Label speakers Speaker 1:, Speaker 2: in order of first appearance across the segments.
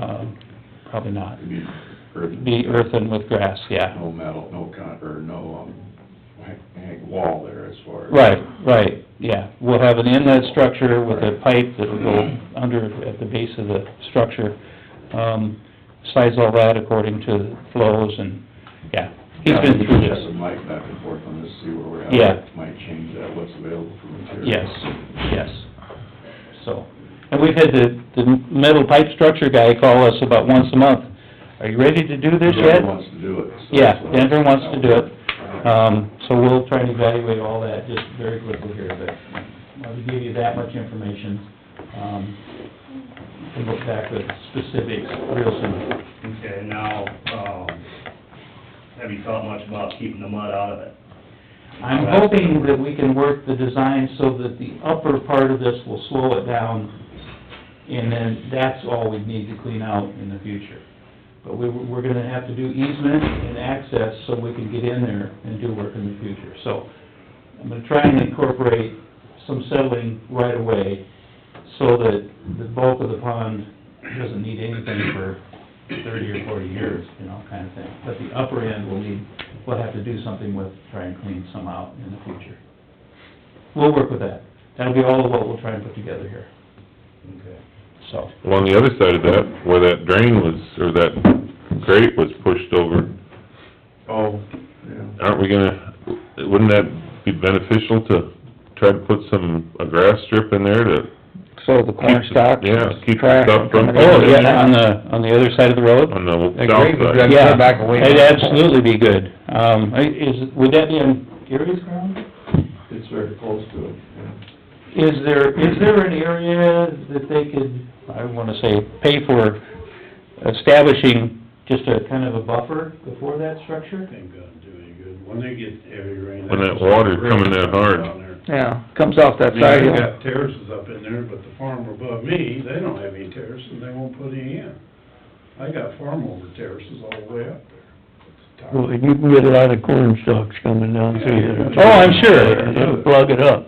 Speaker 1: Uh, probably not.
Speaker 2: It'd be earth-
Speaker 1: Be earthen with grass, yeah.
Speaker 2: No metal, no con, or no, um, hang, hang wall there as far as.
Speaker 1: Right, right, yeah. We'll have an inlet structure with a pipe that'll go under at the base of the structure. Um, size all that according to flows and, yeah. He's been through
Speaker 2: Check with
Speaker 1: this.
Speaker 2: Mike back and forth on this, see where we're at.
Speaker 1: Yeah.
Speaker 2: Might change that, what's available for material.
Speaker 1: Yes, yes. So, and we've had the, the metal pipe structure guy call us about once a month. Are you ready to do this yet?
Speaker 2: Denver wants to do it. so
Speaker 1: Yeah,
Speaker 2: that's what-
Speaker 1: Denver wants to do it. Um, so we'll try and evaluate all that just very quickly here, but I wanted to give you that much information. Um, we look back with specifics real soon.
Speaker 3: Okay, now, um, have you thought much about keeping the mud out of it?
Speaker 1: I'm hoping that we can work the design so that the upper part of this will slow it down, and then that's all we need to clean out in the future. But we, we're gonna have to do easement and access so we can get in there and do work in the future. So I'm gonna try and incorporate some settling right away so that the bulk of the pond doesn't need anything for thirty or forty years, you know, kind of thing. But the upper end will need, we'll have to do something with, try and clean some out in the future. We'll work with that. That'll be all of what we'll try and put together here,
Speaker 3: Okay.
Speaker 1: so.
Speaker 4: Well, on the other side of that, where that drain was, or that grate was pushed over,
Speaker 2: Oh, yeah.
Speaker 4: aren't we gonna, wouldn't that be beneficial to try to put some, a grass strip in there to...
Speaker 5: So the corn
Speaker 4: keep the-
Speaker 5: stalks.
Speaker 4: Yeah, keep the
Speaker 5: trash
Speaker 4: stuff from...
Speaker 5: coming in. Oh,
Speaker 4: coming in
Speaker 1: Oh, on the, on the other side of the road?
Speaker 4: On the
Speaker 5: That grate was
Speaker 4: south side.
Speaker 5: done. Yeah, back away.
Speaker 1: It'd absolutely be good. Um, I- is, would that be on Gary's ground?
Speaker 2: It's very close to it, yeah.
Speaker 1: Is there, is there an area that they could, I wanna say, pay for establishing just a kind of a buffer before that structure?
Speaker 6: Ain't gonna do any good. When they get heavy rain.
Speaker 4: When that water coming that hard.
Speaker 6: down there.
Speaker 5: Yeah, comes off that
Speaker 6: I
Speaker 5: side,
Speaker 6: mean, they
Speaker 5: yeah.
Speaker 6: got terraces up in there, but the farm above me, they don't have any terraces, and they won't put any in. I got farm over terraces all the way up there.
Speaker 7: Well, you can get a lot of corn stalks coming down through there.
Speaker 6: Oh, I'm
Speaker 7: sure. They'll plug it up.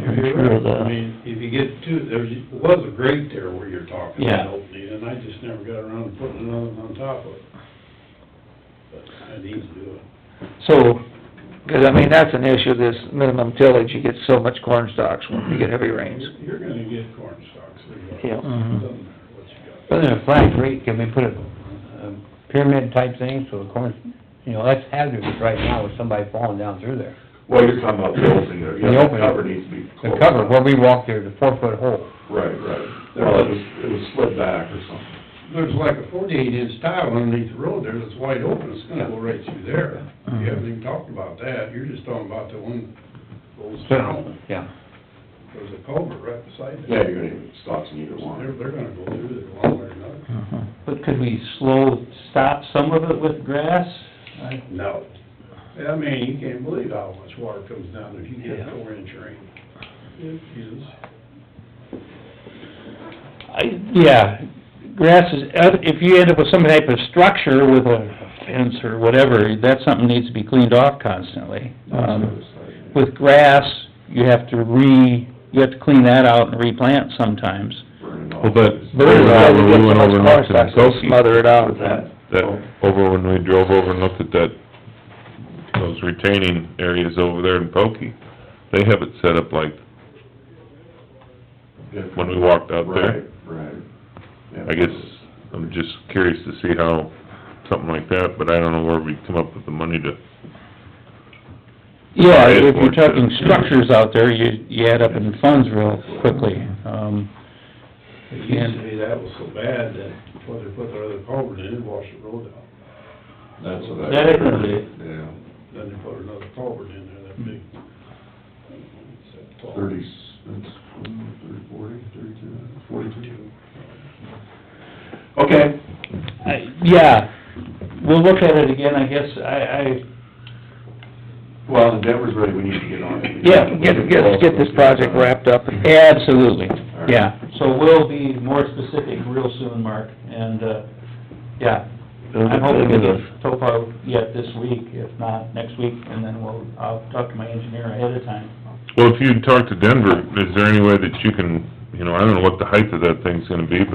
Speaker 6: You're
Speaker 7: I'm sure of
Speaker 6: right. I
Speaker 7: that.
Speaker 6: mean, if you get two, there's, was a grate there where you're talking
Speaker 1: Yeah.
Speaker 6: about opening, and I just never got around to putting another one on top of it. But I need to do it.
Speaker 1: So,
Speaker 5: 'Cause I mean, that's an issue, this minimum tillage, you get so much corn stalks when you get heavy rains.
Speaker 6: You're- You're gonna get corn stalks, regardless.
Speaker 5: Yeah.
Speaker 6: Doesn't matter what you got.
Speaker 7: But in a flat grate, can we put a um, pyramid type thing so the corn, you know, that's hazardous right now with somebody falling down through there.
Speaker 2: Well, you're talking about the opening there, yeah,
Speaker 7: The
Speaker 2: the
Speaker 7: opening.
Speaker 2: cover needs to be
Speaker 7: The
Speaker 2: closed.
Speaker 7: cover, where we walk there, the four foot hole.
Speaker 2: Right, right. Well, it was, it was slid back or something.
Speaker 6: There's like a forty-eight inch tile underneath the road there that's wide open, it's gonna go right through there. You haven't even talked about that, you're just talking about the one goes down,
Speaker 7: Yeah.
Speaker 6: there's a culvert right beside
Speaker 2: Yeah,
Speaker 6: that.
Speaker 2: you're gonna have stocks in either
Speaker 6: So They're,
Speaker 2: one.
Speaker 6: they're gonna go through there one way or another.
Speaker 1: but could we slow, stop some of it with grass? I-
Speaker 6: No. I mean, you can't believe how much water comes down if you get a four inch rain. It is.
Speaker 1: I, yeah, grass is, uh, if you end up with some type of structure with a fence or whatever, that's something that needs to be cleaned off constantly. Um, with grass, you have to re, you have to clean that out and replant sometimes.
Speaker 2: Burning off.
Speaker 4: Well, that,
Speaker 5: But it's
Speaker 4: that
Speaker 5: like you
Speaker 4: when we
Speaker 5: get so
Speaker 4: went
Speaker 5: much
Speaker 4: over and
Speaker 5: corn
Speaker 4: looked
Speaker 5: stalks,
Speaker 4: at
Speaker 5: it'll smother it out.
Speaker 2: With that,
Speaker 4: that, over when we drove over and looked at that, those retaining areas over there in Pokie, they have it set up like,
Speaker 2: if-
Speaker 4: when we walked out there.
Speaker 2: Right, right. Yeah.
Speaker 4: I guess, I'm just curious to see how, something like that, but I don't know where we come up with the money to,
Speaker 1: Yeah, if you're talking structures out there, you, you add up in funds real quickly. Um,
Speaker 6: It used to be that was so bad that before they put their other culvert in, it washed the road out.
Speaker 2: That's what I.
Speaker 1: That is what it is.
Speaker 2: Yeah,
Speaker 6: Then they put another culvert in there, that big.
Speaker 2: thirty, that's, um, thirty, forty, thirty-two, forty-two. Okay,
Speaker 1: I- yeah, we'll look at it again, I guess, I, I,
Speaker 2: well, the Denver's ready, we need to get on it.
Speaker 1: Yeah,
Speaker 5: Get, get, get this project wrapped up and
Speaker 1: absolutely, yeah. So we'll be more specific real soon, Mark, and, uh, yeah. I'm hoping to get topo yet this week, if not next week, and then we'll, I'll talk to my engineer ahead of time.
Speaker 4: well, if you talk to Denver, is there any way that you can, you know, I don't know what the height of that thing's gonna be, but